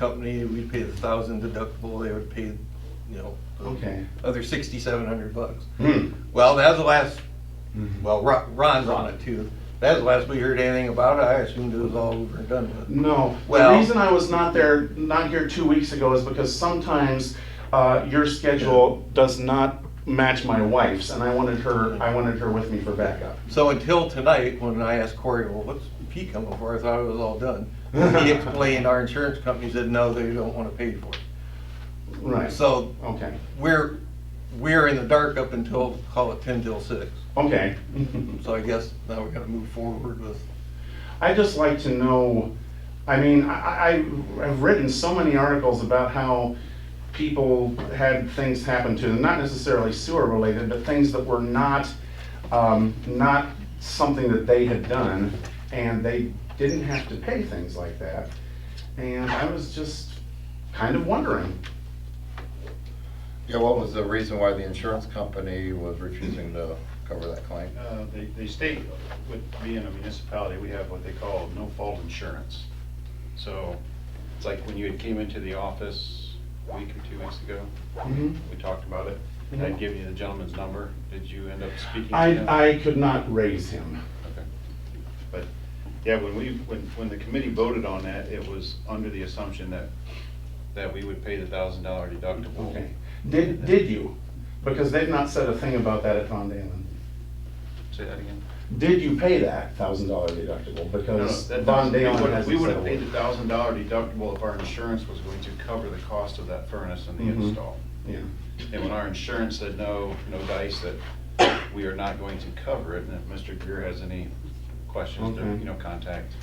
company, we'd pay the thousand deductible, they would pay, you know, Okay. the other sixty-seven hundred bucks. Hmm. Well, that's the last, Mhm. well, Ro- Ron's on it too. That's the last we heard anything about it. I assumed it was all over and done with. No. Well- the reason I was not there, not here two weeks ago, is because sometimes uh, your schedule does not match my wife's, and I wanted her. I wanted her with me for backup. So until tonight, when I asked Corey, well, what's he coming for? I thought it was all done. He explained, our insurance company said, no, they don't want to pay for it. Right. So Okay. we're, we're in the dark up until, call it ten till six. Okay. So I guess now we're gonna move forward with, I just like to know. I mean, I, I, I've written so many articles about how people had things happen to them, not necessarily sewer related, but things that were not, um, not something that they had done, and they didn't have to pay things like that. And I was just kind of wondering. Yeah, what was the reason why the insurance company was refusing to cover that claim? Uh, They, they state with being a municipality, we have what they call no fault insurance. So it's like when you had came into the office a week or two weeks ago, we talked about it. and I'd given you the gentleman's number. Did you end up speaking to him? Mm-hmm. I, I could not raise him. Okay. But, yeah, when we, when, when the committee voted on that, it was under the assumption that, that we would pay the thousand dollar deductible. Okay. Did, did you? Because they've not said a thing about that at Von Dalen. Say that again? Did you pay that thousand dollar deductible? No, no, Because that- Von we Dalen would've- has. We would have paid the thousand dollar deductible if our insurance was going to cover the cost of that furnace and the Mhm. install. Yeah, And when our insurance said no, no dice, that we are not going to cover it, and if Mr. Greer has any questions, then, Okay. you know, contact,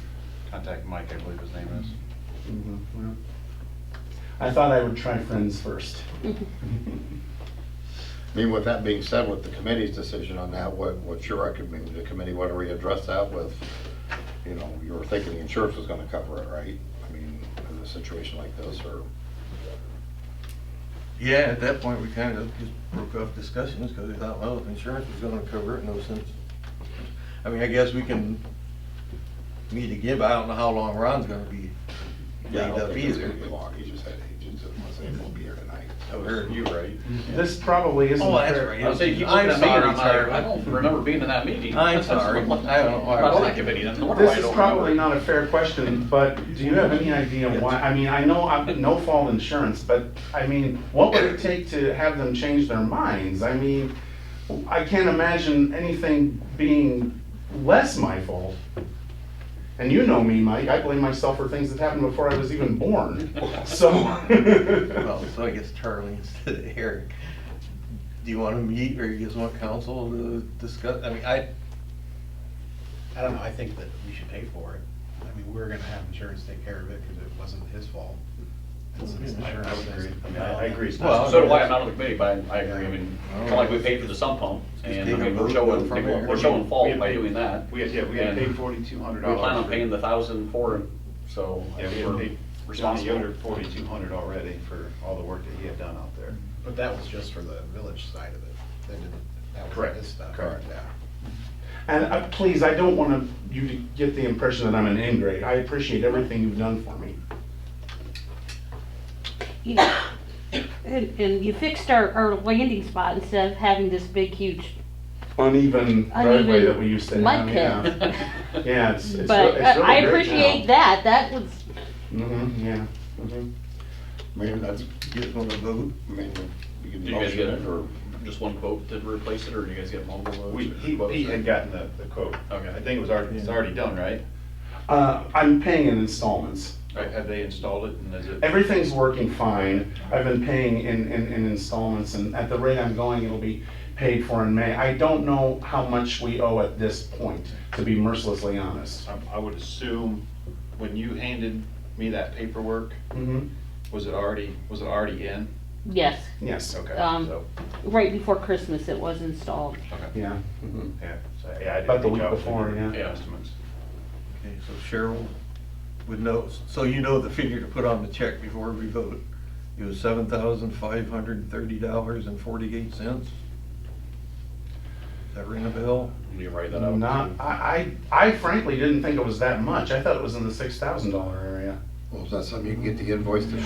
contact Mike, I believe his name is. mhm, well. I thought I would try friends first. I mean, with that being said, with the committee's decision on that, what, what's your recommendation? The committee, what do we address that with? You know, you were thinking the insurance was gonna cover it, right? I mean, in a situation like this, or, yeah, at that point, we kind of just broke off discussions because we thought, well, if insurance was gonna cover it, no sense. I mean, I guess we can meet again, but I don't know how long Ron's gonna be yeah, I laid don't up think it's gonna either. be long. He just had, he just was able to be here tonight. I heard you right? This probably isn't. Oh, that's fair. right. I was saying, you I'm looking at me, and sorry, sorry. I'm like, I don't remember being in that meeting. I'm sorry. I don't know why I About was- that committee, that's the one why I This is don't probably remember. not a fair question, but do you have any idea why? I mean, I know I'm no fault insurance, but I mean, what would it take to have them change their minds? I mean, I can't imagine anything being less my fault. And you know me, Mike, I blame myself for things that happened before I was even born, so. Well, so I guess Charlie instead of Eric. Do you want to meet or you just want council to discuss? I mean, I, I don't know, I think that we should pay for it. I mean, we we're gonna have insurance take care of it because it wasn't his fault. And since insurance Mm-hmm. I would is- agree. I mean, I- I agree. It's not- Well, So do I, I'm not on the committee, but I I agree, I mean, kind of like we paid for the sump pump, and I Oh. take a mean, we're vote showing, from people- there. we're showing fault had by paid- doing that. We had, yeah, we had And paid forty-two hundred We dollars. plan on paying the thousand for it, so I Yeah, we think had we're paid Johnny responsible. Yoder forty-two hundred already for all the work that he had done out there. But that was just for the village side of it. That didn't, that was Correct, his stuff. correct. Yeah. And uh, please, I don't want to, you to get the impression that I'm an ingrate. I appreciate everything you've done for me. you know, and, and you fixed our, our landing spot instead of having this big, huge, Uneven driveway that we used to have, mud pit. yeah. Yeah, it's, it's re- But it's really uh, I great appreciate that, that was, Mm-hmm, yeah. mhm. I mean, that's, you just want to vote. I mean, you can Did you guys motion get it, or just one quote to replace it, or do you guys get multiple quotes? We, or he, quotes, Pete or- had gotten the, the quote. Okay. I think it was already, it's already done, right? Uh, I'm paying in installments. Right, have they installed it and is it? Everything's working fine. I've been paying in, in, in installments and at the rate I'm going, it'll be paid for in May. I don't know how much we owe at this point, to be mercilessly honest. I- I would assume when you handed me that paperwork, Mm-hmm, was it already, was it already in? yes, yes, Okay, Um, so, right before Christmas it was installed. yeah. mhm. yeah. so, yeah, I didn't About the think week I was before, in yeah. the Estimates. Okay, so Cheryl would know, so you know the figure to put on the check before we vote. It was seven thousand five hundred and thirty dollars and forty-eight cents. Does that ring a bell? Will you write that up? Not, I, I I frankly didn't think it was that much. I thought it was in the six thousand dollar area. Well, is that something you can get the invoice to